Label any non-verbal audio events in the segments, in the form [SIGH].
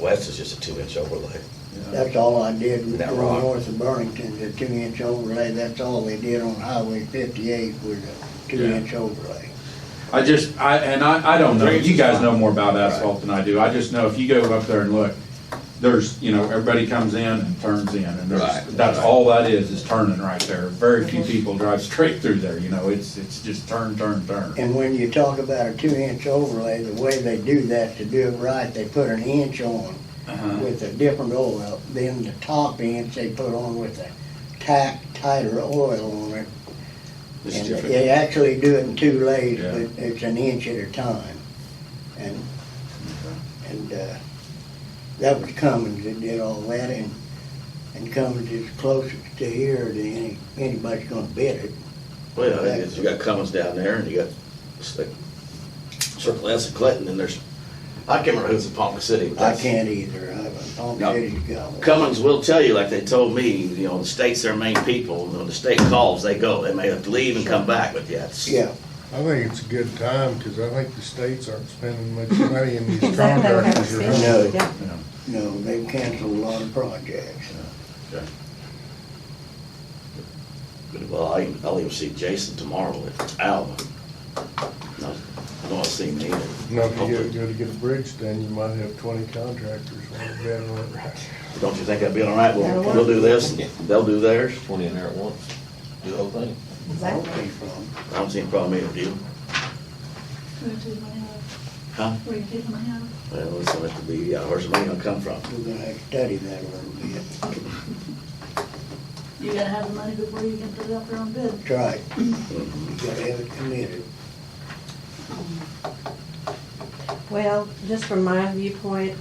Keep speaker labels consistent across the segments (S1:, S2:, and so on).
S1: West is just a two-inch overlay.
S2: That's all I did was
S1: That
S2: go
S1: rock.
S2: north of Burlington, the two-inch overlay, that's all they did on Highway fifty-eight was a two-inch overlay.
S3: I just, I, and I, I don't know, you guys know more about asphalt than I do, I just know if you go up there and look, there's, you know, everybody comes in and turns in, and
S1: Right,
S3: there's, that's
S1: right.
S3: all that is, is turning right there. Very few people drive straight through there, you know, it's, it's just turn, turn, turn.
S2: And when you talk about a two-inch overlay, the way they do that, to do it right, they put an inch on
S3: Uh-huh.
S2: with a different oil, then the top inch they put on with a tack tighter oil on it.
S1: This
S2: And
S1: is different.
S2: they actually do it in two lays,
S3: Yeah.
S2: but it's an inch at a time. And, and, uh, that was Cummins that did all that and, and Cummins is closest to here than any, anybody's gonna bid it.
S1: Well, yeah, it is. you got Cummins down there and you got it's like Circle S and Clinton and there's, I can't remember who's in Ponca City. but
S2: I
S1: that's-
S2: can't either. I've, Palm
S1: No.
S2: City's got one.
S1: Cummins will tell you, like they told me, you know, the state's their main people. When the state calls, they go. They may have to leave and come back, but yeah, it's.
S2: Yeah,
S4: I think it's a good time, because I think the states aren't spending
S5: [LAUGHS]
S4: much money in these
S5: Exactly what I was
S4: contractors. are
S5: thinking.
S2: No.
S4: hungry.
S5: Yeah.
S2: no, they've canceled a lot of projects.
S1: Well, I, I'll even see Jason tomorrow at Alba. No, no, I've seen him either.
S4: Now, if you go- go to get a bridge done, you might have twenty contractors on bed on it.
S1: Don't you think that'd be all right? We'll,
S5: That'll
S1: we'll do this,
S6: Yeah.
S1: they'll do theirs.
S6: twenty in there at once, do the whole thing.
S5: Exactly.
S2: Healthy from.
S1: I don't see any problem either, do you?
S7: Where do you want to have?
S1: Huh?
S7: uh, Where do you want to have?
S1: Well, it's gonna have to be, yeah, where's the money gonna come from?
S2: We're gonna have to study that a little bit.
S7: You gotta have the money before you can put it out there on bid.
S2: That's right.
S1: Mm-hmm.
S2: You gotta have it committed.
S5: Well, just from my viewpoint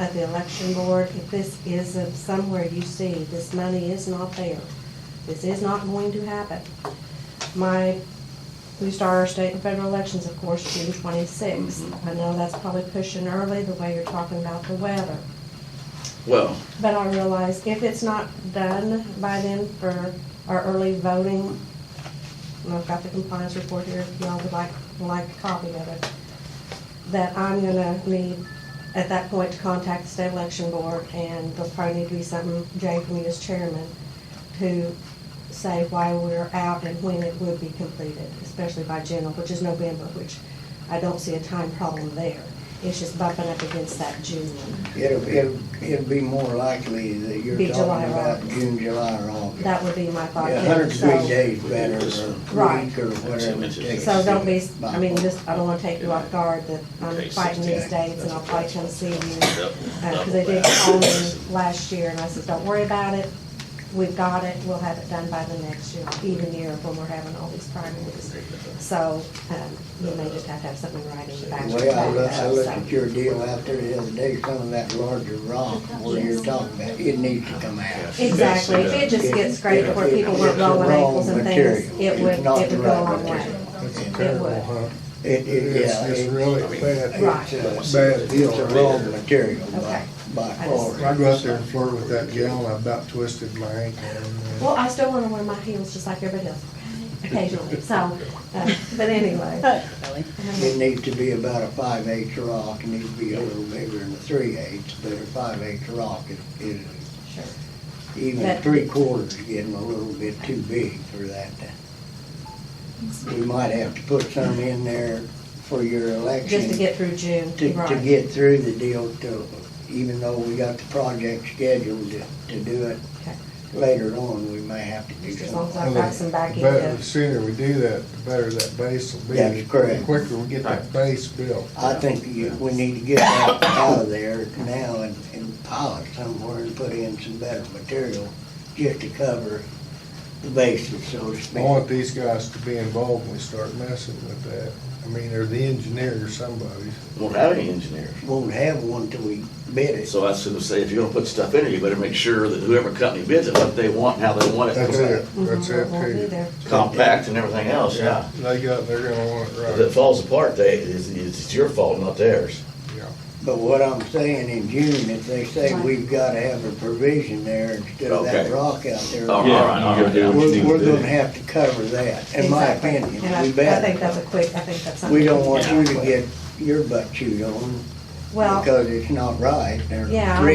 S5: of the election board, if this is of somewhere you see, this money is not there. This is not going to happen. My, we start our state and federal elections, of course, June twenty-sixth. I know that's probably pushing early, the way you're talking about the weather.
S1: Well,
S5: But I realize if it's not done by then for our early voting, and I've got the compliance report here, if y'all would like, like a copy of it, that I'm gonna need, at that point, to contact the state election board, and there'll probably need to be something, Jay, from you as chairman, to say why we're out and when it would be completed, especially by general, which is November, which I don't see a time problem there. It's just bumping up against that June one.
S2: It'll, it'll, it'll be more likely that you're
S5: Be July
S2: talking
S5: or
S2: about
S5: August.
S2: June, July, or August.
S5: That would be my thought.
S2: Yeah,
S5: too.
S2: hundred and three
S5: So-
S2: days better, or a
S5: Right.
S2: week, or whatever it takes.
S5: So don't be, I mean, just, I don't wanna take you off guard that I'm fighting these dates and I'll probably come see you.
S1: yep,
S5: Uh, cause they did call me last year and I said, don't worry about it. We've got it. We'll have it done by the next year, even year when we're having all these primaries. So, um, you may just have to have something right in the back.
S2: The way I look, I looked
S5: So-
S2: at your deal out there the other day, some of that larger rock where you're talking about, it needs to come out.
S5: Exactly, if it just gets graded where people weren't rolling ankles and things, it would, it would go a long way.
S4: That's
S2: It
S4: [LAUGHS] terrible,
S5: would.
S4: huh?
S2: It, it,
S4: It's
S2: yeah,
S4: just
S2: it's,
S4: really bad,
S5: Right.
S2: it's
S4: bad
S2: a, it's
S4: deal.
S2: a wrong material by,
S5: Okay.
S2: by
S5: I
S2: far.
S5: just-
S4: I go out there and flirt with that gal, and I about twisted my ankle. and, uh,
S5: Well, I still want to wear my heels just like everybody else occasionally, so, uh, but anyway.
S2: It needs to be about a five eighths rock, it needs to be a little bigger than a three eighths, but a five eighths rock is, is,
S5: Sure.
S2: even
S5: But-
S2: three quarters is getting a little bit too big for that. We might have to put some in there for your election.
S5: Just to get through June,
S2: to, to
S5: right.
S2: get through the deal to, even though we got the project scheduled to, to do it
S5: Okay.
S2: later on, we may have to do
S5: Just as long as
S2: something.
S5: I've got some back
S4: The
S5: end.
S4: better,
S5: to-
S4: the sooner we do that, the better that base will be.
S2: That's correct.
S4: The quicker we get that base built.
S2: I think you, we need to get that out of there now and, and pile it somewhere and put in some better material just to cover the bases, so to
S4: I
S2: speak.
S4: want these guys to be involved when we start messing with that. I mean, they're the engineer or somebody.
S1: Won't have any engineers.
S2: Won't have one till we bid it.
S1: So I was gonna say, if you're gonna put stuff in there, you better make sure that whoever company bids it, what they want, how they want
S4: That's it,
S1: it,
S4: that's
S5: Mhm, won't be
S4: it too.
S5: there.
S1: compact and everything else, yeah.
S4: They got, they're gonna want it
S1: If it
S4: right.
S1: falls apart, they, it's, it's your fault, not theirs.
S4: Yeah.
S2: But what I'm saying in June, if they say we've gotta have a provision there instead of that
S1: Okay.
S2: rock out there.
S1: All right,
S3: Yeah,
S1: all right, all
S3: you go
S1: right.
S3: down.
S2: We're, we're gonna have to cover that, in my
S5: Exactly.
S2: opinion.
S5: And I,
S2: We
S5: I think
S2: better.
S5: that's a quick, I think that's something.
S2: We don't want you to
S5: Yeah.
S2: get your butt chewed on Well.
S5: Because it's not right, they're
S2: Yeah.
S5: three